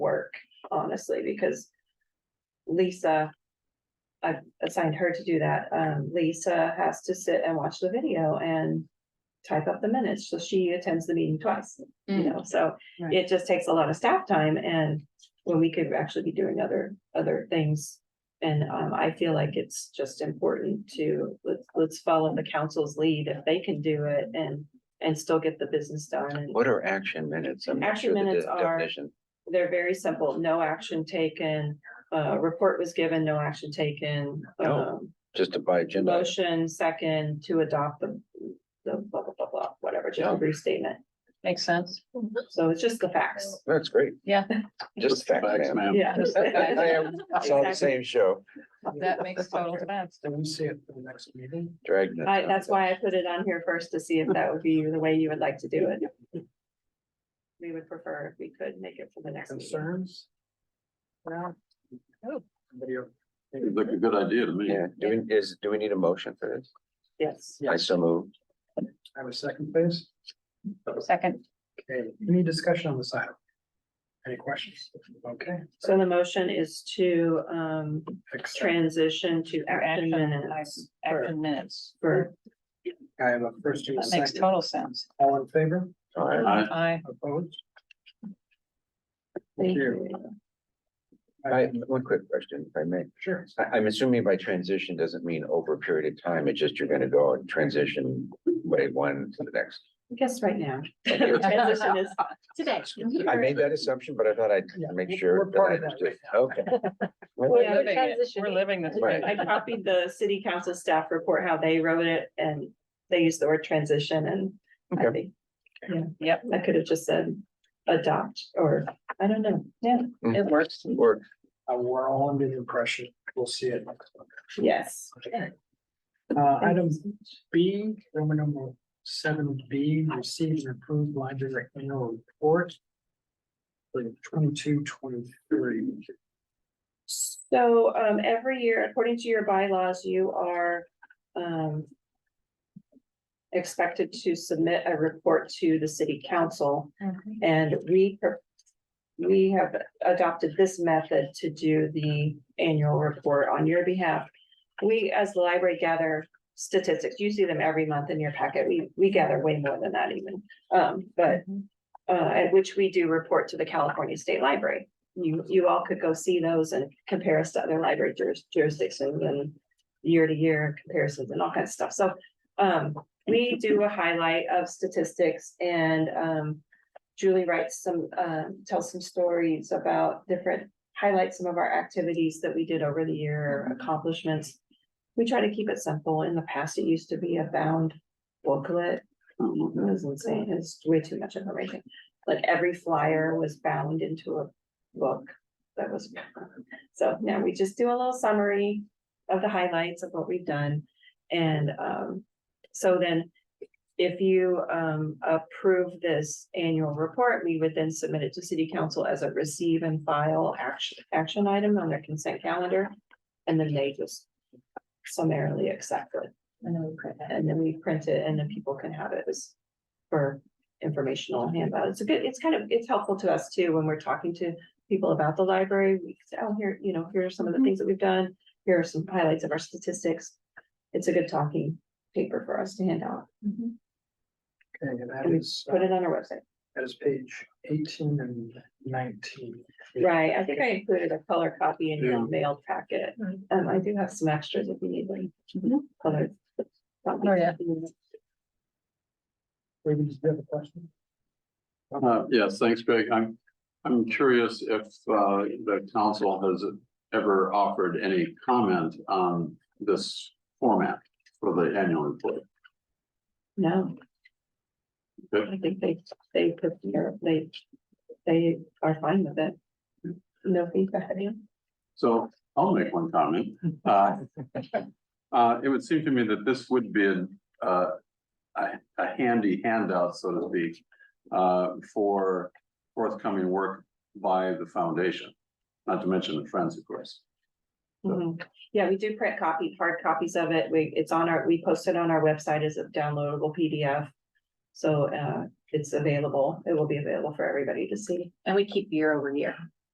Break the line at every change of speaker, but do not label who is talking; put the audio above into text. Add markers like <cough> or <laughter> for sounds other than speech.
work, honestly, because Lisa, I've assigned her to do that. Um, Lisa has to sit and watch the video and type up the minutes, so she attends the meeting twice, you know, so
Right.
it just takes a lot of staff time and when we could actually be doing other, other things. And, um, I feel like it's just important to, let's, let's follow the council's lead if they can do it and, and still get the business done and
What are action minutes? I'm not
Action
sure the
minutes
de-
are-
definition.
they're very simple, no action taken, uh, report was given, no action taken.
No.
um,
Just to buy agenda. item.
Motion second to adopt the, the blah, blah, blah, blah, whatever, just a
Yeah.
brief statement.
Makes sense.
So it's just the facts,
That's great.
Yeah.
Just fact,
<laughs>
man.
yeah.
<laughs> I am, it's all the
Exactly.
same show,
That makes total sense.
Can we see it for the next meeting?
dragging it.
I, that's why I put it on here first to see if that would be the way you would like to do it. We would prefer if we could make it for the next meeting.
Concerns? No. Video.
Seems like a good idea to me.
Yeah, do we, is, do we need a motion for this?
Yes,
I so move.
Have a second, please.
Second,
Okay, any discussion on this item? Any questions? Okay.
so the motion is to, um,
accept.
transition to
or
action
action,
minutes.
I- action minutes.
For,
I have a first and a
That makes
second.
total sense.
All in favor?
All right.
I,
I,
Opposed?
thank
Thank
you.
you.
I, one quick question, if I may.
Sure.
I, I'm assuming by transition doesn't mean over a period of time, it's just you're gonna go and transition way one to the next.
I guess right <laughs> now. <laughs>
Transition
is today.
I made that assumption, but I thought I'd
Yeah,
make
we're-
sure
we're
that I
part of that
understood. Okay. Well,
we're
Yeah,
living it,
transitioning.
we're living this.
Right.
I copied the city council staff report, how they wrote it, and they used the word transition and I
Okay.
think
Yep,
I could have just said adopt or, I don't know, yeah,
it works.
Or
Uh, we're all under the impression, we'll see it next month.
yes.
Okay. Uh, item B, Roman number seven B, receive and approve library annual report. For twenty-two, twenty-three.
So um every year, according to your bylaws, you are um. Expected to submit a report to the city council
Mm-hmm.
and we. pro- We have adopted this method to do the annual report on your behalf. We, as the library, gather statistics. You see them every month in your packet. We we gather way more than that even. Um, but uh, at which we do report to the California State Library. You, you all could go see those and compare us to other library juris- jurisdictions and year to year comparisons and all kinds of stuff. So, um, we do a highlight of statistics and, um, Julie writes some, um, tells some stories about different, highlights some of our activities that we did over the year, accomplishments. We try to keep it simple. In the past, it used to be a bound booklet. Um, It was insane. It's way too much information like every flyer was bound into a book that was. <laughs> So now we just do a little summary of the highlights of what we've done. And um, so then if you um approve this annual report, we would then submit it to city council as a receive and file action, action item on their consent calendar. And then they just summarily accept it. And then we print it. And then we print it and then people can have it as for informational handout. It's a good, it's kind of, it's helpful to us too, when we're talking to people about the library. We say, oh, here, you know, here are some of the
Mm-hmm.
things that we've done. Here are some highlights of our statistics. It's a good talking paper for us to hand out.
Okay, and that
And we
is, uh,
Put it on our website.
that is page eighteen and nineteen.
Right, I think I included a color copy in your
Yeah.
mailed packet.
Mhm.
Um, I do have some extras if you need them.
Mhm.
Colored.
Oh, yeah.
Ruben, did you have a question?
uh, yes, thanks, Greg. I'm, I'm curious if, uh, the council has ever offered any comment on this format for the annual report.
No.
Good.
I think they, they prepare, they, they are fine with it. No feedback, yeah.
So I'll make one comment. Uh, uh, it would seem to me that this would be an, uh, a, a handy handout, so to speak, uh, for forthcoming work by the foundation, not to mention the friends, of course.
Mhm. Yeah, we do print copy, hard copies of it. We, it's on our, we post it on our website as a downloadable PDF. So uh, it's available. It will be available for everybody to see.
And we keep year over year.